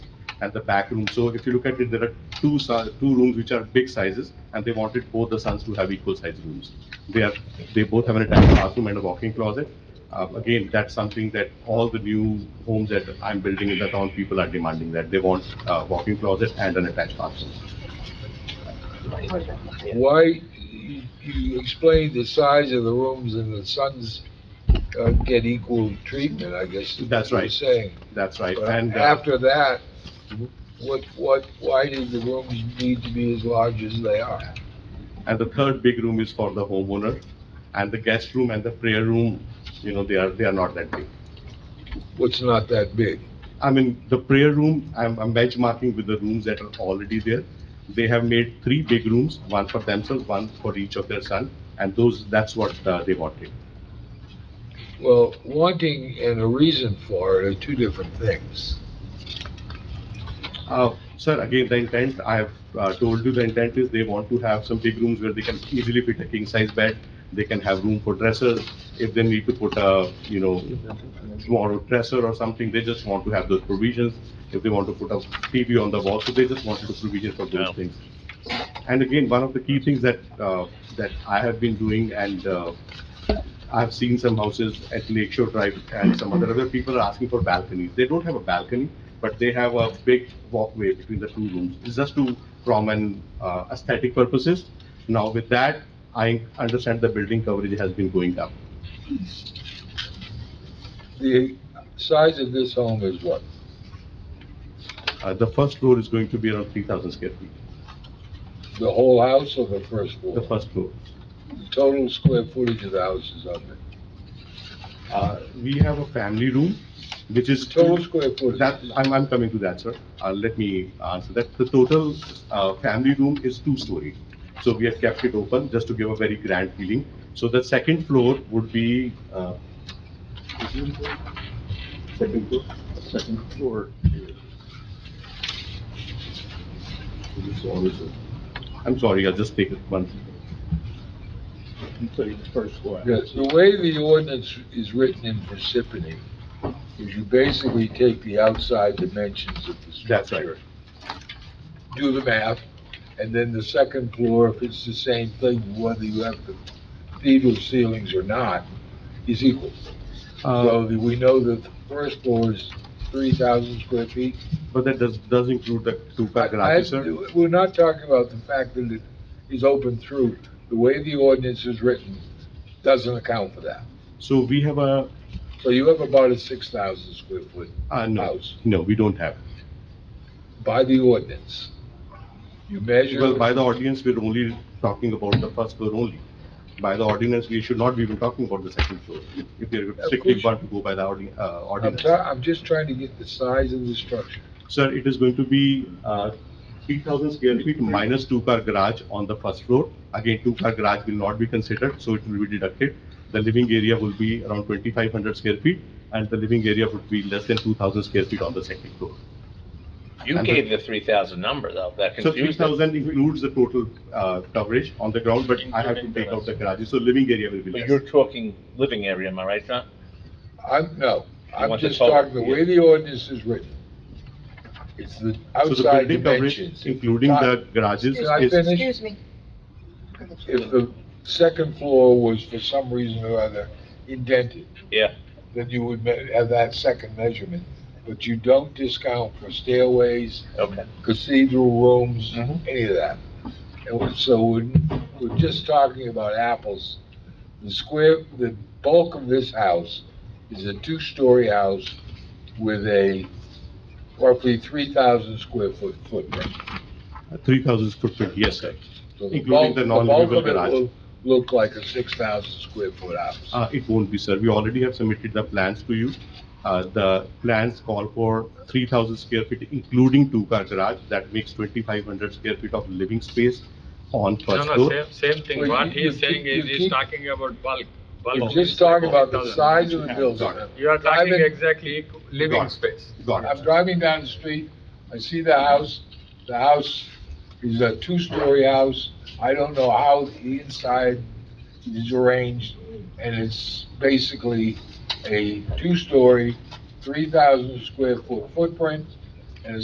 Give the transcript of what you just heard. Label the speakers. Speaker 1: and the back room. So if you look at it, there are two, si- two rooms which are big sizes, and they wanted both the sons to have equal size rooms. They are, they both have an attached bathroom and a walk-in closet. Uh, Again, that's something that all the new homes that I'm building in the town, people are demanding that. They want a walk-in closet and an attached bathroom.
Speaker 2: Why, you you explained the size of the rooms and the sons uh, get equal treatment, I guess. is what
Speaker 1: That's right.
Speaker 2: You're saying.
Speaker 1: That's right.
Speaker 2: But
Speaker 1: And uh,
Speaker 2: after that, what, what, why did the rooms need to be as large as they are?
Speaker 1: and the third big room is for the homeowner, and the guest room and the prayer room, you know, they are, they are not that big.
Speaker 2: What's not that big?
Speaker 1: I mean, the prayer room, I'm, I'm benchmarking with the rooms that are already there. They have made three big rooms, one for themselves, one for each of their son, and those, that's what uh, they wanted.
Speaker 2: Well, wanting and a reason for it are two different things.
Speaker 1: Uh, Sir, again, the intent, I have uh, told you, the intent is they want to have some big rooms where they can easily fit a king-size bed, they can have room for dressers, if they need to put a, you know, small dresser or something, they just want to have those provisions, if they want to put a TV on the wall, so they just wanted to provision for those things. And again, one of the key things that, uh, that I have been doing and uh, I've seen some houses at Lakeshore Drive and some other, other people are asking for balconies. They don't have a balcony, but they have a big walkway between the two rooms. It's just to, from an uh, aesthetic purposes. Now with that, I understand the building coverage has been going up.
Speaker 2: The size of this home is what?
Speaker 1: Uh, The first floor is going to be around 3,000 square feet,
Speaker 2: The whole house or the first floor?
Speaker 1: the first floor.
Speaker 2: The Total square footage of the house is under.
Speaker 1: Uh, We have a family room, which is.
Speaker 2: Total square footage.
Speaker 1: That, I'm, I'm coming to that, sir. Uh, let me answer that. The total, uh, family room is two-story. So we have kept it open just to give a very grand feeling. So the second floor would be, uh, second floor, second floor. I'm sorry, I'll just take it one.
Speaker 2: Yes, the way the ordinance is written in Parsippany is you basically take the outside dimensions of the
Speaker 1: That's right.
Speaker 2: structure. Do the math, and then the second floor, if it's the same thing, whether you have the cathedral ceilings or not, is equal.
Speaker 1: Uh,
Speaker 2: So the- we know that the first floor is three thousand square feet.
Speaker 1: But that does, does include the two-car
Speaker 2: I-
Speaker 1: garage, sir?
Speaker 2: We're not talking about the fact that it is open through. The way the ordinance is written doesn't account for that.
Speaker 1: So we have a,
Speaker 2: So you have about a six thousand square foot
Speaker 1: uh, no,
Speaker 2: house
Speaker 1: no, we don't have.
Speaker 2: by the ordinance. You
Speaker 1: Well, by
Speaker 2: measure,
Speaker 1: the audience, we're only talking about the first floor only. By the ordinance, we should not be even talking about the second floor, if we're strictly
Speaker 2: course.
Speaker 1: want to go by the ordi- uh,
Speaker 2: I'm
Speaker 1: ordinance.
Speaker 2: try, I'm just trying to get the size of the structure.
Speaker 1: Sir, it is going to be uh, 3,000 square feet minus two-car garage on the first floor. Again, two-car garage will not be considered, so it will be deducted. The living area will be around 2,500 square feet, and the living area would be less than 2,000 square feet on the second floor.
Speaker 3: You
Speaker 1: And the-
Speaker 3: gave the three thousand number though, that
Speaker 1: So
Speaker 3: confused them.
Speaker 1: 3,000 includes the total uh, coverage on the ground, but I have to
Speaker 3: Including
Speaker 1: take out the
Speaker 3: terrace.
Speaker 1: garage, so living area will be
Speaker 3: But
Speaker 1: less.
Speaker 3: you're talking living area, am I right, John?
Speaker 2: I'm, no, I'm
Speaker 3: want the
Speaker 2: just
Speaker 3: total,
Speaker 2: talking, the way the ordinance is written. It's
Speaker 1: So
Speaker 2: the
Speaker 1: the
Speaker 2: outside
Speaker 1: building coverage,
Speaker 2: dimensions.
Speaker 1: Including the garages
Speaker 2: Can I
Speaker 1: is,
Speaker 2: finish?
Speaker 4: Excuse me.
Speaker 2: If the second floor was for some reason or other indented,
Speaker 3: Yeah,
Speaker 2: then you would me- have that second measurement. But you don't discount for stairways,
Speaker 3: okay.
Speaker 2: cathedral rooms,
Speaker 1: Mm-hmm.
Speaker 3: Mhm.
Speaker 2: any of that. And we- so we're, we're just talking about apples. The square, the bulk of this house is a two-story house with a roughly three thousand square foot footprint.
Speaker 1: three thousand footprint, yes, sir.
Speaker 2: So
Speaker 1: Including
Speaker 2: bulk-
Speaker 1: the
Speaker 2: bulk
Speaker 1: non-livable
Speaker 2: of it
Speaker 1: garage.
Speaker 2: will Look like a six thousand square foot house.
Speaker 1: Uh, it won't be, sir. We already have submitted the plans to you. Uh, the plans call for three thousand square feet, including two-car garage. That makes twenty-five hundred square feet of living space on
Speaker 5: No,
Speaker 1: first
Speaker 5: no,
Speaker 1: floor.
Speaker 5: same, same thing,
Speaker 2: Well,
Speaker 5: what
Speaker 2: you- you
Speaker 5: he's saying
Speaker 2: keep-
Speaker 5: is,
Speaker 2: you
Speaker 5: he's
Speaker 2: keep-
Speaker 5: talking about bulk,
Speaker 2: We're
Speaker 5: bulk.
Speaker 2: just talking about the
Speaker 5: 4,000.
Speaker 2: size of the building.
Speaker 5: You are
Speaker 2: I've
Speaker 5: talking
Speaker 2: been-
Speaker 5: exactly equ- living
Speaker 1: Got
Speaker 5: space.
Speaker 1: Got it.
Speaker 2: I'm driving down the street, I see the house, the house is a two-story house, I don't know how the inside is arranged, and it's basically a two-story, three thousand square foot footprint